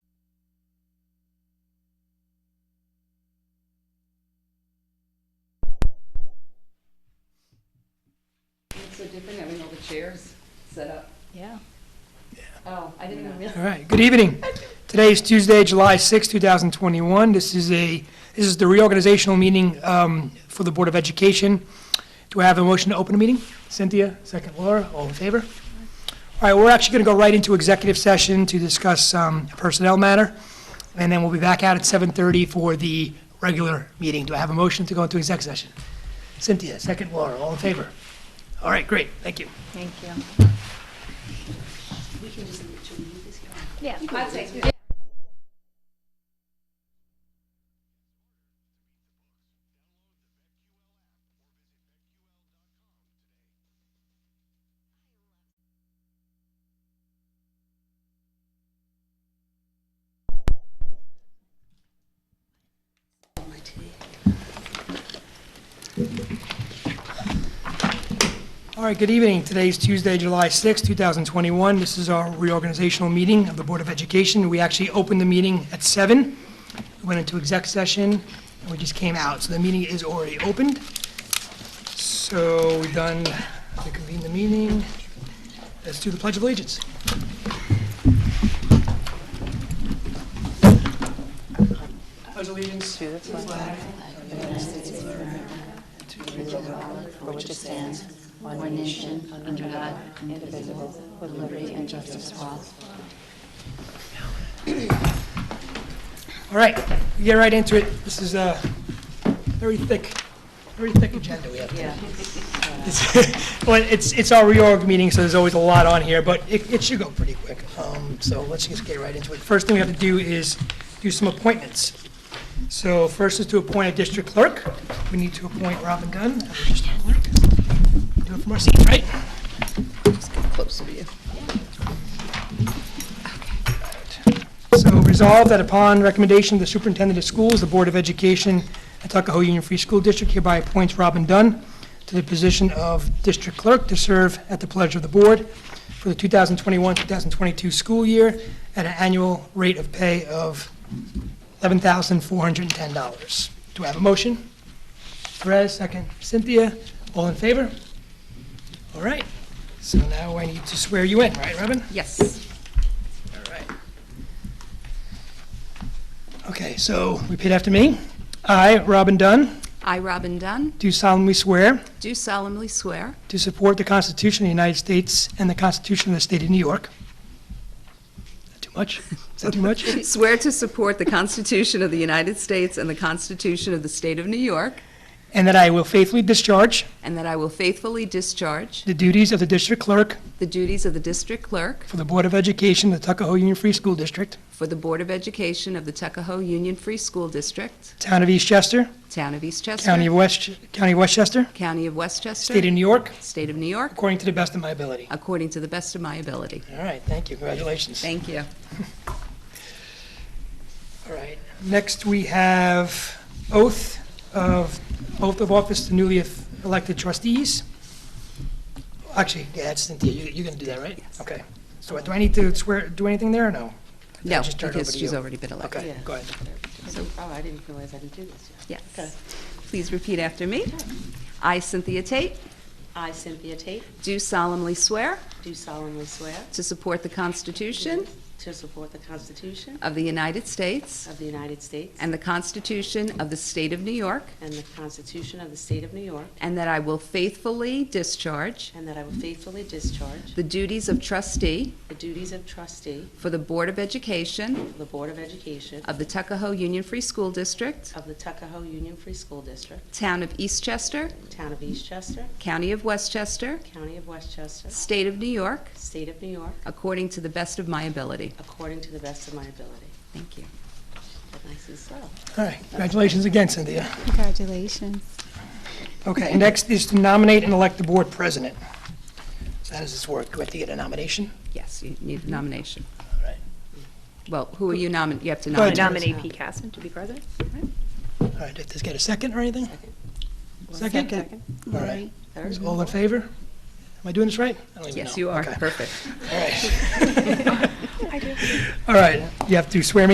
are different, having all the chairs set up. Yeah. Oh, I didn't even realize. All right, good evening. Today is Tuesday, July sixth, two 2021. This is a, this is the reorganizational meeting um, for the Board of Education. Do I have a motion to open the meeting? Cynthia, second Laura, all in favor? All right, we're actually going to go right into executive session to discuss um, a personnel matter, and then we'll be back out at 7:30 for the regular meeting. Do I have a motion to go into exec session? Cynthia, second Laura, all in favor? All right, great, thank you. Thank you. We can just literally leave this here. Yeah. I'll take it. All right, good evening. Today is Tuesday, July sixth, two 2021. This is our reorganizational meeting of the Board of Education. We actually opened the meeting at seven. We went into exec session, and we just came out. So the meeting is already opened. So we've done, we convene the meeting. Let's do the Pledge of Allegiance. Pledge allegiance to All right, we get right into it. This is a very thick, very thick agenda we have today. It's- Well, it's, it's our reorg meeting, so there's always a lot on here, but it, it should go pretty quick. Um, So let's just get right into it. First thing we have to do is do some appointments. So first is to appoint a district clerk. We need to appoint Robin Dunn as a district clerk. Do it from our seat, right? So resolved that upon recommendation of the superintendent of schools, the Board of Education at Tuckahoe Union Free School District hereby appoints Robin Dunn to the position of district clerk to serve at the pleasure of the board for the 2021-2022 school year at an annual rate of pay of $11,410. Do I have a motion? Perez, second. Cynthia, all in favor? All right. So now I need to swear you in, right, Robin? Yes. All right. Okay, so repeat after me. I, Robin Dunn, I, Robin Dunn, do solemnly swear do solemnly swear to support the Constitution of the United States and the Constitution of the State of New York. Not too much? Is that too much? Swear to support the Constitution of the United States and the Constitution of the State of New York, And that I will faithfully discharge and that I will faithfully discharge the duties of the district clerk the duties of the District Clerk for the Board of Education of the Tuckahoe Union Free School District, for the Board of Education of the Tuckahoe Union Free School District, Town of Eastchester, Town of Eastchester, County of West, County of Westchester, County of Westchester, State of New York, State of New York, according to the best of my ability. according to the best of my ability. All right, thank you. Congratulations. Thank you. All right, next we have oath of, oath of office to newly elected trustees. Actually, yeah, that's Cynthia, You- you're going to do that, right? Yes. Okay, so do I need to swear, do anything there or no? No, just turn it over because to she's you. already been elected. Okay, go ahead. So- Oh, I didn't realize I didn't do this yet. Okay. Yes. Please repeat after me. I, Cynthia Tate, I, Cynthia Tate, do solemnly swear do solemnly swear to support the Constitution to support the Constitution of the United States of the United States and the Constitution of the State of New York, and the Constitution of the State of New York, and that I will faithfully discharge and that I will faithfully discharge the duties of trustee the duties of trustee for the Board of Education of the Board of Education of the Tuckahoe Union Free School District, of the Tuckahoe Union Free School District, Town of Eastchester, Town of Eastchester, County of Westchester, County of Westchester, State of New York, State of New York, according to the best of my ability. according to the best of my ability. Thank you. Nice and slow. All right, congratulations again, Cynthia. Congratulations. Okay, next is to nominate and elect the board president. So how does this work? Do I have to get a nomination? Yes, you need a nomination. All right. Well, who are you nominating? You have to Go ahead, nominate. nominate Pete Casson to be president. All right, did this get a second or anything? Second? All right, Third? all in favor? Am I doing this right? I don't even Yes, know. you are. Okay. Perfect. All right. All right, you have to swear me